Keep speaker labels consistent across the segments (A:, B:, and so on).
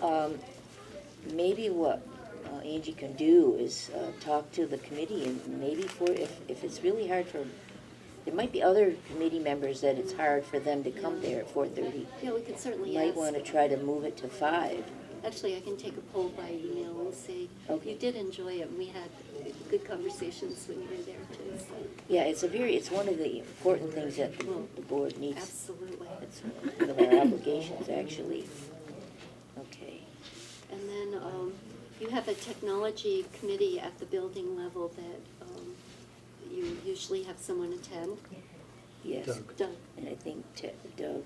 A: um, maybe what uh, Angie can do is uh, talk to the committee and maybe for, if, if it's really hard for, there might be other committee members that it's hard for them to come there at four thirty.
B: Yeah, we could certainly
A: Might want
B: ask.
A: to try to move it to five.
B: Actually, I can take a poll by email and say,
A: Okay.
B: you did enjoy it, and we had good conversations when you were there too, so,
A: Yeah, it's a very, it's one of the important things that the board needs.
B: absolutely.
A: It's one of our obligations, actually. Okay.
B: And then um, you have a technology committee at the building level that um, you usually have someone attend.
A: Yes.
C: Doug.
B: Doug,
A: And I think Ted- Doug,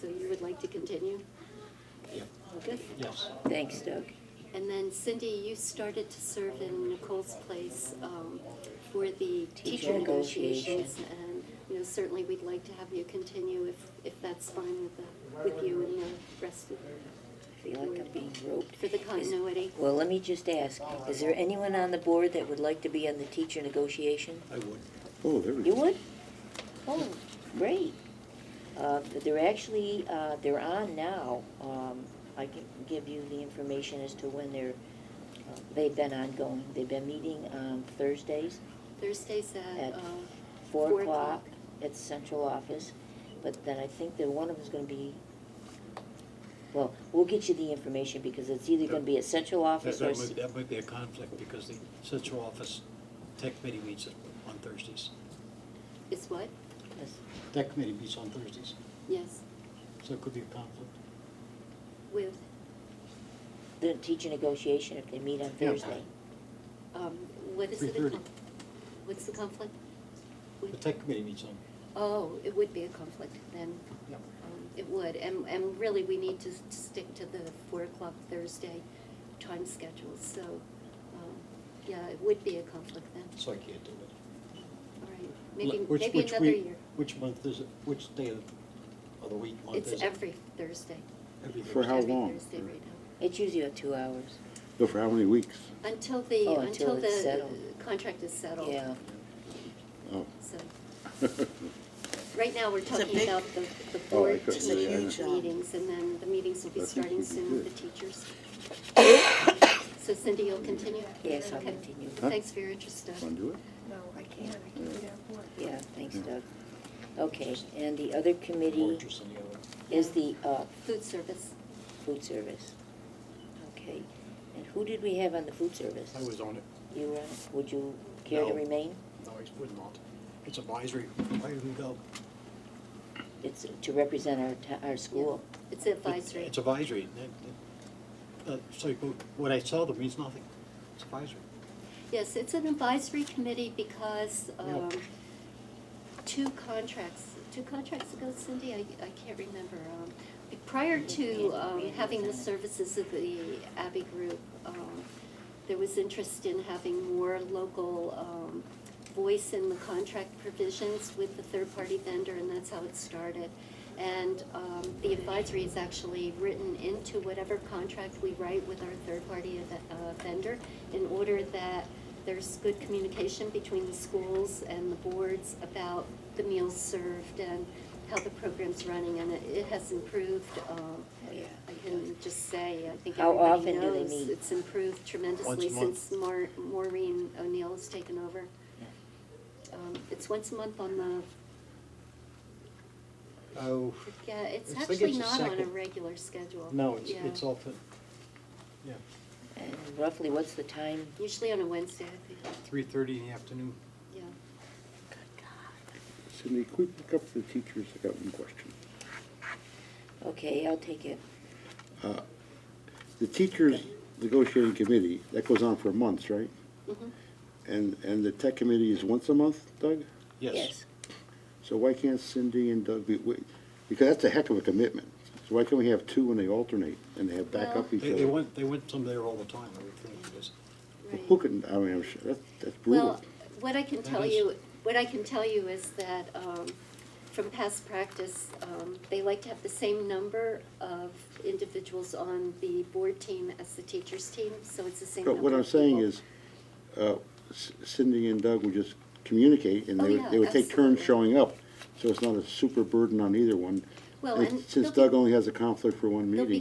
B: so you would like to continue?
C: Yeah.
B: Good.
C: Yes.
A: thanks Doug.
B: And then Cindy, you started to serve in Nicole's place um, for the teacher negotiations. And, you know, certainly we'd like to have you continue if, if that's fine with, the- with you and the rest of,
A: I feel like I'm being roped.
B: for the
A: Is-
B: continuity.
A: Well, let me just ask, is there anyone on the board that would like to be on the teacher negotiation?
C: I would.
D: Oh, there we
A: You
D: go.
A: would? Oh, great. Uh, They're actually, uh, they're on now. Um, I can give you the information as to when they're, uh, they've been ongoing. They've been meeting on Thursdays
B: Thursdays at
A: At
B: uh,
A: four o'clock at the central office, but then I think that one of them's gonna be, well, we'll get you the information, because it's either gonna be at central
C: That
A: office or,
C: that
A: s-
C: might, that might be a conflict because the central office tech committee meets on Thursdays.
B: Is what?
A: yes,
C: That committee meets on Thursdays,
B: Yes,
C: so it could be a conflict.
B: with,
A: the teacher negotiation if they meet on
C: Yeah.
A: Thursday.
B: um, what is it?
C: 3:30.
B: again? What's the conflict?
C: The tech committee meets on,
B: Oh, it would be a conflict then.
C: yeah.
B: Um, It would, and, and really, we need to s- to stick to the four o'clock Thursday time schedule, so, um, yeah, it would be a conflict then,
C: so I can't do it.
B: all right, maybe,
C: Which-
B: maybe
C: which
B: another
C: week-
B: year.
C: Which month is it, which day of of the week, month is it?
B: It's every Thursday.
C: Every
D: For
C: Thursday.
D: how long?
B: Every Thursday right now,
A: It's usually about two hours.
D: Go for how many weeks?
B: until the,
A: Oh, until
B: until
A: it's
B: the
A: settled.
B: uh, contract is settled.
A: Yeah,
D: Oh.
B: So, right now, we're talking
E: big-
B: about the, the
D: Oh, I
B: board
D: couldn't
E: see it. It's a huge, um,
B: meetings, and then the meetings will be
D: I think
B: starting
D: we'd be
B: soon with
D: good.
B: the teachers. So Cindy, you'll continue?
A: yes, I'll
B: Okay.
A: continue.
D: Huh?
B: Thanks for your interest, Doug.
D: Want to do it?
E: No, I can't, I can't do that work.
A: Yeah, thanks
D: Yeah.
A: Doug. Okay, and the other
C: More
A: committee
C: interest in the other.
A: is the, uh,
B: Food service.
A: food service. Okay, and who did we have on the food service?
C: I was on it.
A: You were, on it? would you care to
C: No.
A: remain?
C: No, I would not. It's advisory. Why didn't we go?
A: It's to represent our, to- our school.
B: It's advisory.
C: It's advisory. That- that- uh, So you- what I tell them means nothing. It's advisory.
B: Yes, it's an advisory committee because um, two contracts, two contracts ago, Cindy, I I can't remember. um, Prior to um, having the services of the Abbey Group, um, there was interest in having more local um, voice in the contract provisions with the third-party vendor, and that's how it started. And um, the advisory is actually written into whatever contract we write with our third-party ev- uh, vendor in order that there's good communication between the schools and the boards about the meals served and how the program's running, and it- it has improved. um,
A: Oh, yeah.
B: I can just say, I think
A: How
B: everybody
A: often do they
B: knows
A: meet?
B: it's improved tremendously
C: Once a month.
B: since Mar- Maureen O'Neill has taken over. Um, It's once a month on the,
C: Oh,
B: yeah, it's
C: I think
B: actually
C: it's the
B: not on a
C: second.
B: regular schedule.
C: no, it's,
B: Yeah.
C: it's off at, yeah,
A: And roughly, what's the time?
B: Usually on a Wednesday, I think,
C: three thirty in the afternoon.
B: yeah.
D: Cindy, can we pick up the teachers? I got one question.
A: Okay, I'll take it.
D: The teachers negotiating committee, that goes on for months, right?
B: Mhm.
D: And, and the tech committee is once a month, Doug?
C: Yes.
D: So why can't Cindy and Doug be, wait, because that's a heck of a commitment. So why can't we have two when they alternate and they have backup each
C: They, they
D: other?
C: went, they went some there all the time, I would think, because
B: Right.
D: Who can, I mean, I'm sure, that's, that's
B: Well,
D: brutal.
B: what I can
C: That
B: tell
C: is-
B: you, what I can tell you is that um, from past practice, um, they like to have the same number of individuals on the board team as the teachers' team, so it's the same
D: But
B: number.
D: what I'm
B: of
D: saying
B: people.
D: is, uh, C- Cindy and Doug would just communicate and
B: Oh,
D: they
B: yeah,
D: would, they would take turns
B: absolutely.
D: showing up. So it's not a super burden on either one.
B: Well, and they'll
D: Since
B: be-
D: Doug only has a conflict for one
B: they'll be
D: meeting.